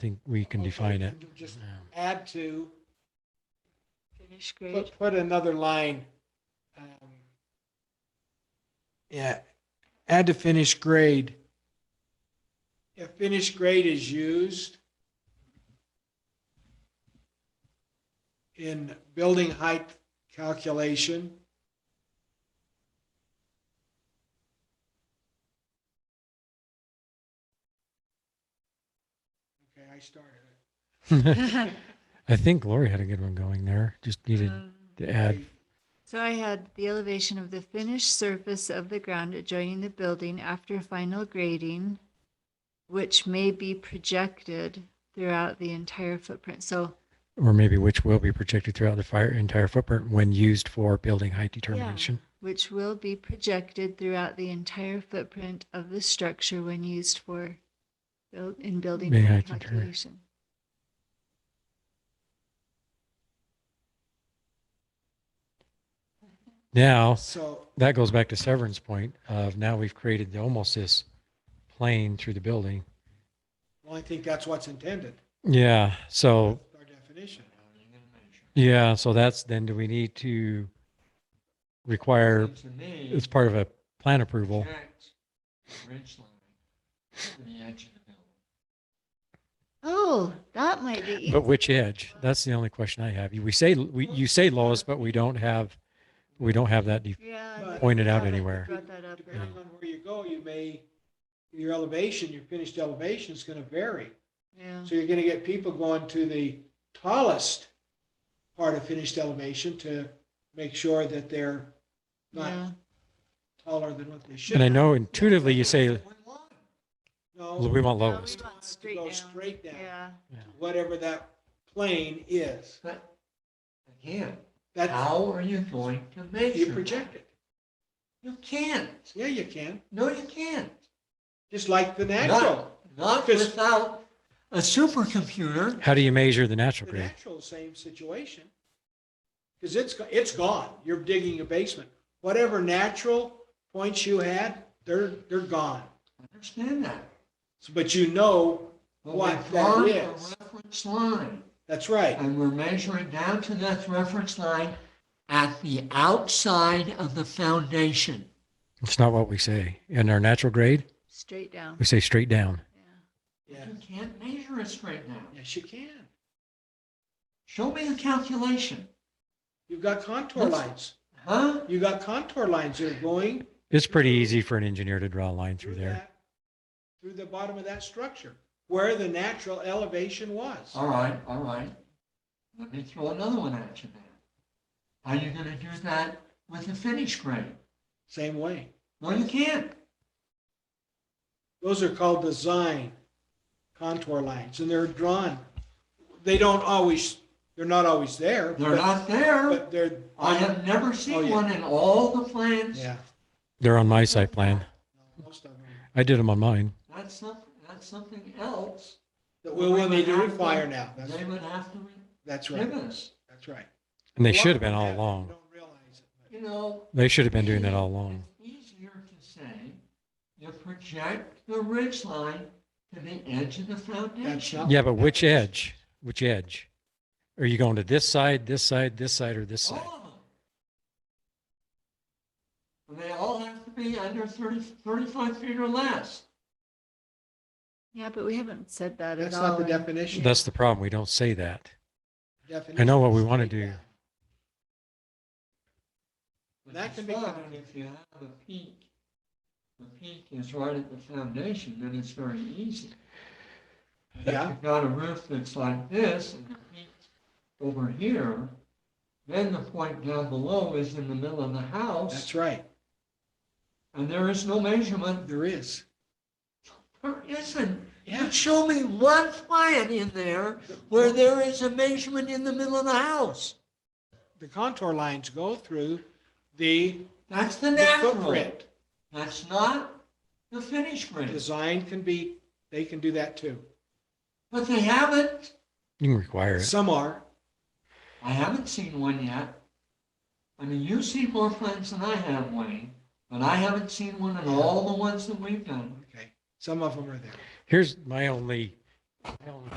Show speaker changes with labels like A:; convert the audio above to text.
A: think we can
B: Okay,
A: define it.
B: can you Just add to,
C: Finish grade.
B: put, put another line. um, Yeah, add to finished grade. If finished grade is used in building height calculation, okay, I started it.
A: I think Lori had a good one going there. Just needed
C: Um,
A: to add.
C: So I had the elevation of the finished surface of the ground adjoining the building after final grading, which may be projected throughout the entire footprint. So,
A: or maybe which will be projected throughout the fire entire footprint when used for building height determination.
C: which will be projected throughout the entire footprint of the structure when used for, buil- in building
A: May I
C: height
A: determine-
C: calculation.
A: Now
B: So,
A: that goes back to Severin's point of now we've created almost this plane through the building.
B: well, I think that's what's intended,
A: Yeah. So
B: our definition.
A: yeah. So that's then do we need to require
D: To me,
A: it's part of a plan approval?
D: project ridge line to the edge of the building.
C: Oh, that might be. easy.
A: But which edge? That's the only question I have. We say we you say lowest, but we don't have we don't have that. De-
C: Yeah.
B: But-
C: that-
A: Point it out
C: yeah,
A: anywhere.
C: Brought that up.
B: Depending on where you go, you may, your elevation, your finished elevation is going to vary.
C: Yeah.
B: So you're going to get people going to the tallest part of finished elevation to make sure that they're
C: Yeah.
B: not taller than what they should.
A: and I know intuitively you say
D: We want
A: we
B: No,
A: want
C: No, we
A: lowest.
C: want
B: want to go straight down.
C: Yeah.
B: whatever that plane is,
D: But again,
B: that
D: how are you going to measure?
B: you
D: that?
B: project it.
D: You can't.
B: Yeah, you can,
D: No, you can't.
B: just like the natural.
D: Not, not
B: Phys-
D: without a supercomputer.
A: How do you measure the natural
B: The
A: grade?
B: natural, same situation. Because it's, go- it's gone. You're digging a basement. Whatever natural points you had, they're, they're gone.
D: Understand that.
B: So- But you know,
D: But we
B: What that
D: formed a
B: is.
D: Reference line,
B: that's right.
D: and we're measuring down to that reference line at the outside of the foundation.
A: It's not what we say. In our natural grade,
C: Straight down.
A: we say straight down.
C: Yeah.
B: Yeah.
D: You can't measure it straight now.
B: Yes, you can.
D: Show me the calculation.
B: You've got contour
D: That's-
B: lines.
D: Huh?
B: You've got contour lines that are going
A: It's pretty easy for an engineer to draw a line
B: through
A: through there.
B: that, through the bottom of that structure, where the natural elevation was.
D: All right, all right. Let me throw another one at you now. Are you gonna do that with a finish grade?
B: Same way.
D: No, you can't.
B: Those are called design contour lines, and they're drawn. They don't always, they're not always there.
D: They're
B: but-
D: not there.
B: But they're.
D: I have never
B: Oh,
D: seen
B: yeah.
D: one in all the plans.
B: Yeah,
A: They're on my site plan.
B: most of them.
A: I did them on mine.
D: That's something, that's something else.
B: That we will need to
D: They would
B: require
D: have to-
B: now. That's,
D: They would have to
B: that's
D: give
B: right.
D: us,
B: That's right.
A: And
B: A
A: they
B: lot
A: should have
B: of
A: been all
B: people
A: along.
B: Don't realize it.
D: you know.
A: They should have been doing that all along.
D: It's Easier to say, you project the ridge line to the edge of the foundation.
B: not-
A: Yeah, but which edge? Which edge? Are you going to this side, this side, this side, or this
D: All
A: side?
D: of them. And they all have to be under 30, 35 feet or less.
C: Yeah, but we haven't said that at
B: That's
C: all.
B: not the
C: in-
B: definition.
A: That's the problem. We don't say that.
B: Definition
A: I know what we
B: is
A: want to
B: straight
A: do.
B: down.
D: But
B: That
D: it's
B: can be
D: fine
B: covered.
D: If you have a peak, the peak is right at the foundation, then it's very easy. If
B: Yeah.
D: you've got a roof that's like this and the peak over here, then the point down below is in the middle of the house
B: That's right.
D: and there is no measurement.
B: There is.
D: There isn't.
B: Yeah.
D: You show me one plan in there where there is a measurement in the middle of the house.
B: The contour lines go through the
D: That's the
B: the
D: natural.
B: footprint.
D: That's not the finish grade.
B: Design can be, they can do that too.
D: But they haven't.
A: You can require it.
B: Some are.
D: I haven't seen one yet. I mean, you see more plans than I have, Wayne, but I haven't seen one in all the ones that we've done.
B: Okay. Some of them are there.
A: Here's my only, my only